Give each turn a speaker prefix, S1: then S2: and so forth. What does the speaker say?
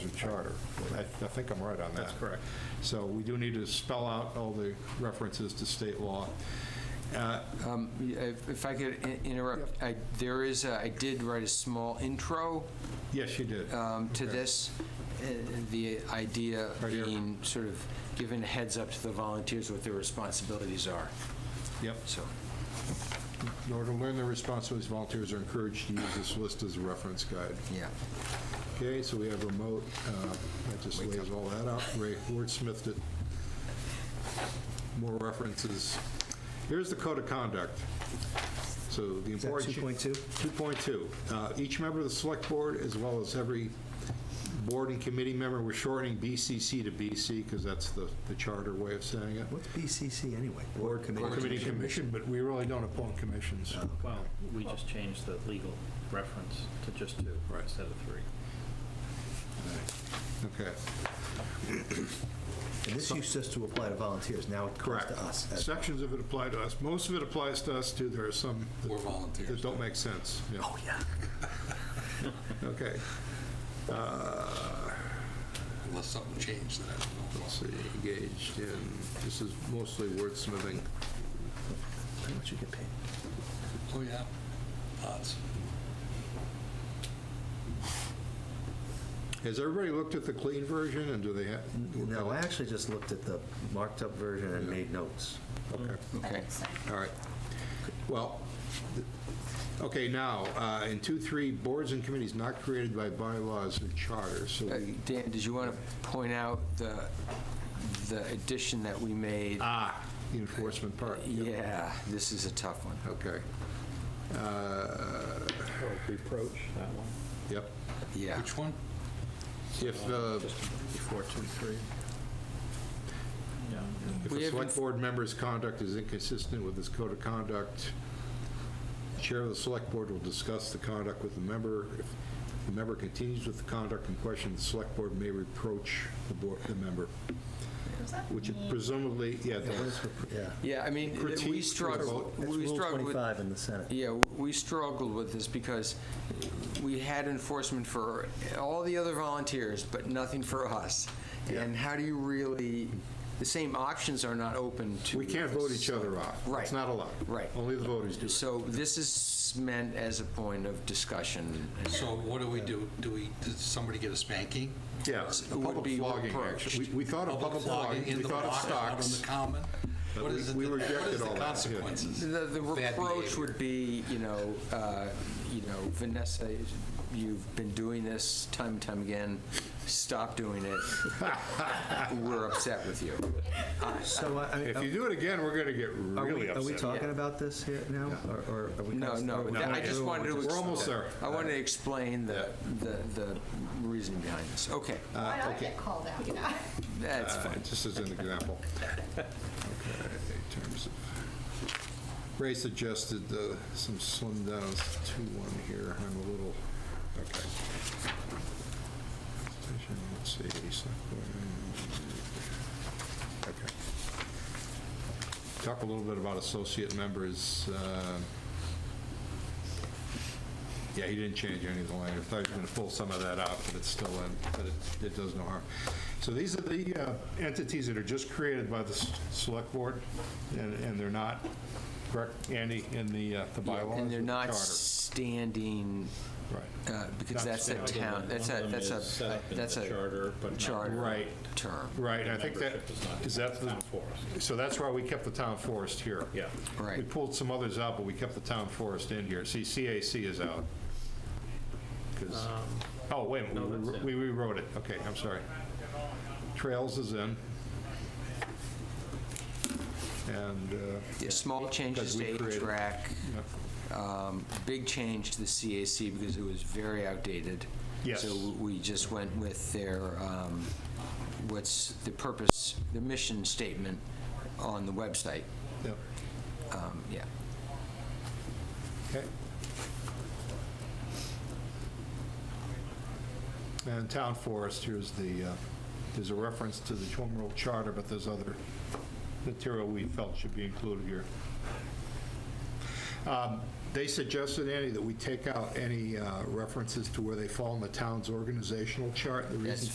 S1: charter. I, I think I'm right on that.
S2: That's correct.
S1: So we do need to spell out all the references to state law. Uh,
S3: Um, If if I could i- interrupt, I- there is, a- I did write a small intro
S1: Yes, you did.
S3: um, to
S1: Okay.
S3: this, uh, the idea
S1: Right here.
S3: being sort of giving a heads up to the volunteers what their responsibilities are,
S1: Yep.
S3: so.
S1: In order to learn the responsibilities, volunteers are encouraged to use this list as a reference guide.
S3: Yeah.
S1: Okay, so we have remote, uh, that just lays all that out. Ray wordsmithed it. More references. Here's the code of conduct. So the
S2: that
S1: important.
S2: 2.2?
S1: 2.2. Uh, Each member of the select board, as well as every board and committee member, we're shortening BCC to BC because that's the the charter way of saying it.
S2: What's BCC anyway? Board Oh.
S1: Committee commission, but we really don't appoint commissions.
S4: Well, we just changed the legal reference to just two
S1: Right.
S4: instead of three.
S1: Okay.
S2: And this used just to apply to volunteers, now it applies
S1: Correct.
S2: to us. as-
S1: Sections of it apply to us. Most of it applies to us, too. There are some. We're volunteers. That don't make sense. Yeah.
S2: Oh, yeah.
S1: Okay. Uh,
S5: Unless something changed that I don't know.
S1: Let's see, engaged in, this is mostly wordsmithing.
S2: How much you get paid?
S5: Oh, yeah. Odds.
S1: Has everybody looked at the clean version, and do they have?
S2: No, I actually just looked at the marked up version and made notes.
S1: Okay,
S3: Okay.
S1: all right. Well, th- okay, now, uh, in 2.3, boards and committees not created by bylaws or charters, so
S3: Uh,
S1: we,
S3: Dan, did you want to point out the, the addition that we made?
S1: ah, the enforcement part. yeah.
S3: Uh, Yeah, this is a tough one.
S1: Okay. Uh,
S4: Reproach, that one.
S1: Yep.
S3: Yeah.
S5: Which one?
S1: If uh, the,
S4: Before two, three. Yeah.
S1: if
S3: We
S1: a
S3: have
S1: select
S3: enf-
S1: board member's conduct is inconsistent with this code of conduct, chair of the select board will discuss the conduct with the member. If the member continues with the conduct in question, the select board may reproach the board, the member, which it presumably, yeah,
S2: Yeah, what
S1: the-
S2: is the- Yeah.
S3: Yeah, I mean,
S1: Critique
S3: we
S1: was
S3: struggled,
S1: vote.
S2: That's
S3: we
S2: Rule
S3: struggled with
S2: 25 in the Senate.
S3: Yeah, we struggled with this because we had enforcement for all the other volunteers, but nothing for us. And how do you really, the same options are not open to.
S1: we can't vote each other off. It's
S3: Right.
S1: not allowed.
S3: Right.
S1: Only the voters do.
S3: So this is meant as a point of discussion.
S5: So what do we do? Do we, does somebody get a spanking?
S1: Yeah,
S3: It would
S1: public
S3: be
S1: flogging, actually. We- We thought of public flogging,
S5: in
S1: we
S5: the
S1: thought of
S5: block, out on
S1: stocks.
S5: the common?
S1: But
S5: What
S1: we-
S5: is it?
S1: we
S5: that-
S1: rejected all that, yeah.
S5: What is the consequences?
S3: The, the
S5: of bad
S3: reproach
S5: behavior?
S3: would be, you know, uh, you know, Vanessa, you've been doing this time and time again. Stop doing it. We're upset with you.
S2: So I- I mean,
S1: If you do it again, we're going to get
S2: are
S1: really
S2: we, are we
S1: upset.
S2: talking about this here now? or- Or are we?
S3: No,
S2: kinda-
S3: no,
S2: are we
S3: that- I
S2: kinda
S3: just
S2: through?
S3: wanted to.
S1: We're almost there.
S3: I wanted to explain the, the, the reason behind this. Okay,
S1: Uh,
S6: Why do I
S1: okay.
S6: get called out now?
S3: that's
S1: Uh,
S3: fine.
S1: Just as an example. Okay, in terms of- Ray suggested uh, some slim downs to one here. I'm a little, okay. Let's see. select board, Okay. Talk a little bit about associate members. uh, Yeah, he didn't change any of the language. I thought he was going to pull some of that out, but it's still in, but it- it does no harm. So these are the uh, entities that are just created by the s- select board, and and they're not, correct, Andy, in the uh, the
S3: Yeah,
S1: bylaws?
S3: And they're
S1: or the
S3: not
S1: charter?
S3: standing,
S1: Right.
S3: uh, because
S1: Not
S3: that's a
S1: standing.
S3: town, that's
S4: One
S3: a,
S4: of them
S3: that's a,
S4: is set up in
S3: that's
S4: the
S3: a.
S4: charter, but not-
S3: charter
S1: Right.
S3: Term,
S1: Right, I think that,
S4: Membership is not
S1: is that, the-
S4: town forest.
S1: so that's why we kept the town forest here.
S4: Yeah.
S1: We
S3: right.
S1: pulled some others out, but we kept the town forest in here. See, CAC is out. 'Cause- oh, wait, a minute,
S4: Um, no, that's in.
S1: we we rewrote it. Okay, I'm sorry. Trails is in. And, uh,
S3: Yeah, Small changes
S1: Because we
S3: to
S1: created-
S3: track
S1: yeah.
S3: um, big change to the CAC because it was very outdated.
S1: Yes.
S3: So we just went with their, um, what's the purpose, the mission statement on the website.
S1: yeah,
S3: Um, Yeah.
S1: okay. And town forest, here's the, uh, there's a reference to the Home Rule Charter, but there's other material we felt should be included here. Um, They suggested, Andy, that we take out any uh, references to where they fall in the town's organizational chart. The
S3: That's
S1: reason